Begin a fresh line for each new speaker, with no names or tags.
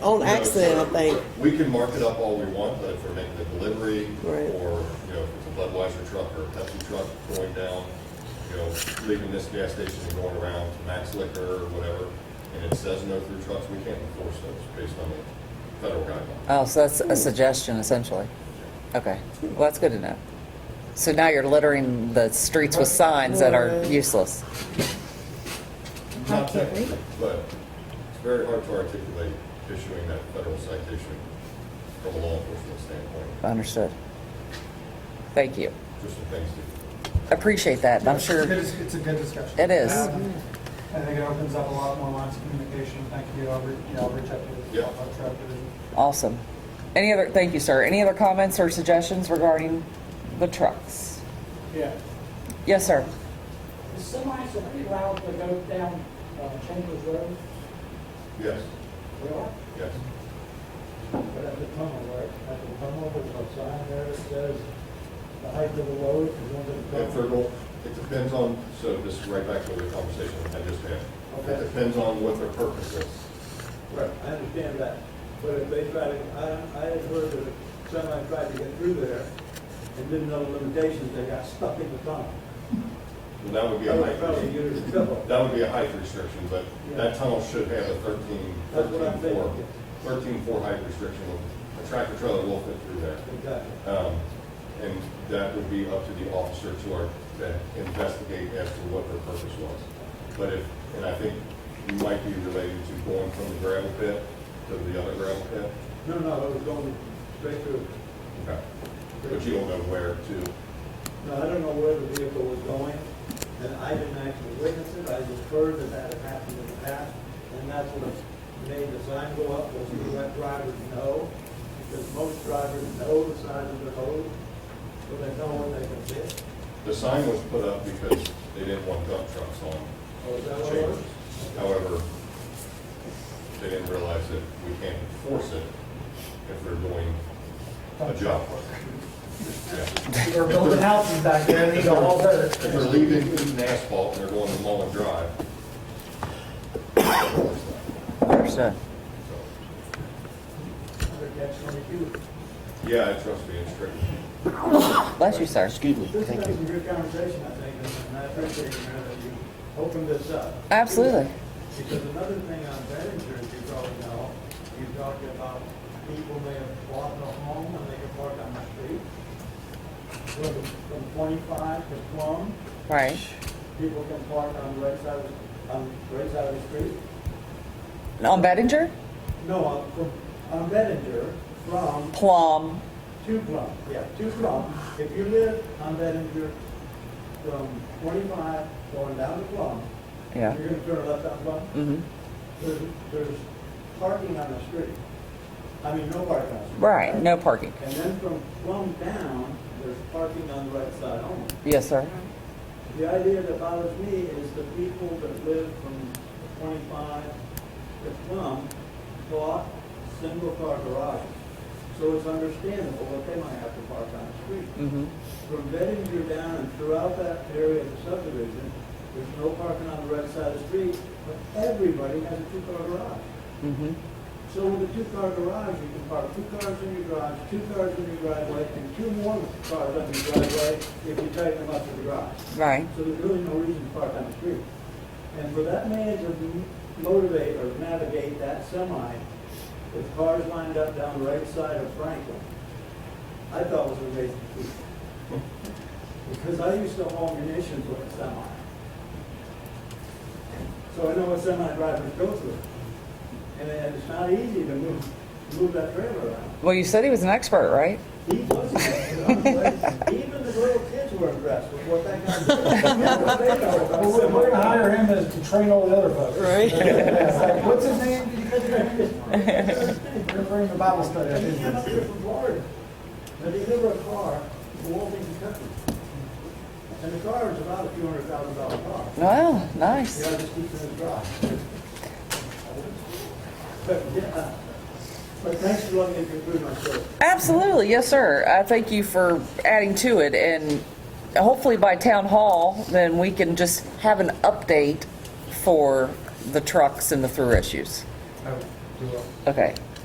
on
You know,
accident, I
so
think.
We can mark it up all we want, but if we're making a delivery,
Right.
or, you know, if it's a Budweiser truck or a Pepsi truck going down, you know, leaving this gas station and going around to Max Liquor or whatever, and it says no through trucks, we can't enforce those based on the federal guidelines.
Oh, so that's a suggestion essentially. Okay, well, that's good to know. So now you're littering the streets with signs that are
Right.
useless.
Not technically, but it's very hard to articulate issuing that federal citation from a law enforcement standpoint,
Understood. Thank you.
just some things to
Appreciate that, and I'm
It's a
sure
good- It's a good discussion.
It is.
Um, I think it opens up a lot more lines of communication. Thank you, I'll re- yeah, I'll reach out to the
Yeah.
Alpha Tribe Division.
awesome. Any other, thank you, sir. Any other comments or suggestions regarding the trucks?
Yeah,
Yes, sir.
the semis are pretty loud to go down uh, Chambers Road,
Yes,
they are,
yes.
But at the tunnel, right, at the tunnel, there's a sign there that says the height of the load is under the
And
tunnel.
Fertile, it depends on, so this is right back to the conversation I just had. It
Okay.
depends on what their purpose is.
Right, I understand that, but if they try to, I, I had heard that somebody tried to get through there and didn't know the limitations, they got stuck in the tunnel.
And that would be
They
a
were probably
height,
using trouble.
that would be a height restriction, but that tunnel should have a thirteen,
That's what I'm
thirteen four,
thinking.
thirteen four height restriction. A tractor trailer will fit through there.
Exactly.
Um, And that would be up to the officer to, our- to investigate as to what their purpose was. But if, and I think you might be related to going from the gravel pit to the other gravel pit.
No, no, it was going straight through.
Okay. But you don't know where to.
No, I don't know where the vehicle was going, and I didn't actually witness it, I just heard that that had happened in the past, and that's what made the sign go up, was to let drivers know, because most drivers know the size of the road, so they know when they can fit.
The sign was put up because they didn't want dump trucks on
Oh, is that what it was?
chambers. However, they didn't realize that we can't enforce it if they're doing a job. Yeah.
We were building houses back there, and these are all dirt.
If they're leaving Eaton asphalt and they're going to Mullen Drive.
Understood.
so,
Under catch twenty-two.
Yeah, trust me, it's tricky.
Bless you, sir. Excuse me.
This has been a good conversation, I think, and I appreciate you, man, that you opened this up.
Absolutely.
Because another thing on Behringer, as you probably know, you talked about people may have bought a home and they can park on the street. From, from twenty-five to Plum,
Right.
people can park on the right side of, the- on the right side of the street.
On Bettinger?
No, on, from, on Behringer, from
Plum.
to Plum, yeah, to Plum. If you live on Behringer, from twenty-five going down to Plum,
Yeah.
you're gonna turn left on Plum.
Mm-hmm.
There's, there's parking on the street. I mean, no parking on the street.
Right, no parking.
And then from Plum down, there's parking on the right side only.
Yes, sir.
The idea that bothers me is the people that live from twenty-five to Plum bought single-car garages. So it's understandable that they might have to park on the street.
Mm-hmm.
From Bettinger down and throughout that area of the subdivision, there's no parking on the right side of the street, but everybody has a two-car garage.
Mm-hmm.
So with a two-car garage, you can park two cars in your garage, two cars in your driveway, and two more cars on your driveway if you tighten them up to the garage.
Right.
So there's really no reason to park on the street. And for that man to m- motivate or navigate that semi with cars lined up down the right side of Franklin, I thought was a amazing feat. Because I used to haul munitions with a semi. So I know what semi drivers go through. And it- it's not easy to move, move that trailer around.
Well, you said he was an expert, right?
He was, even the little kids were impressed with what that guy did.
Well, We're we're gonna hire him to to train all the other folks.
Right.
It's like, What's his name? Did you catch his name? We're gonna bring the Bible study. up
And he came up
here.
here from Florida, and he delivered a car from Walton, Kentucky. And the car was about a few hundred thousand dollar car.
Wow,
You know,
nice.
just keeps it in the garage. But, yeah, but thanks for letting me conclude my story.
Absolutely, yes, sir. I thank you for adding to it, and hopefully by town hall, then we can just have an update for the trucks and the through issues.
Oh, you will.
Okay,